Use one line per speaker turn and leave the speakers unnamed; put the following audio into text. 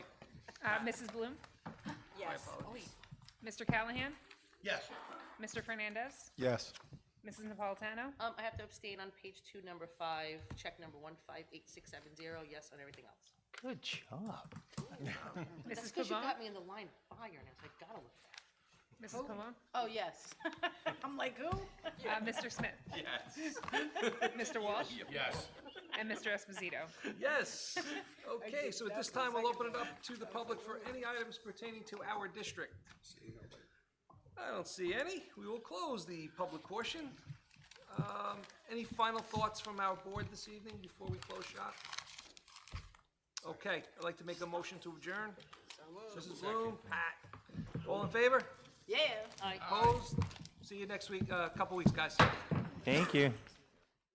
Uh, Mrs. Bloom?
Yes.
Mr. Callahan?
Yes.
Mr. Fernandez?
Yes.
Mrs. Napolitano?
Um, I have to abstain on page two, number five, check number one five eight six seven zero, yes on everything else.
Good job.
Mrs.
Because you
Pavone?
got me in the line of fire, and I was like, gotta look that.
Mrs. Pavone?
Oh, yes. I'm like, who?
Uh, Mr. Smith?
Yes.
Mr. Walsh?
Yes.
And Mr. Esposito?
Yes. Okay, so at this time, we'll open it up to the public for any items pertaining to our district. I don't see any. We will close the public portion. Um, Any final thoughts from our board this evening before we close shop? Okay, I'd like to make a motion to adjourn. Mrs. Bloom, Pat, all in favor?
Yeah. I.
Oh, Opposed? See you next week, a uh, couple weeks, guys.
Thank you.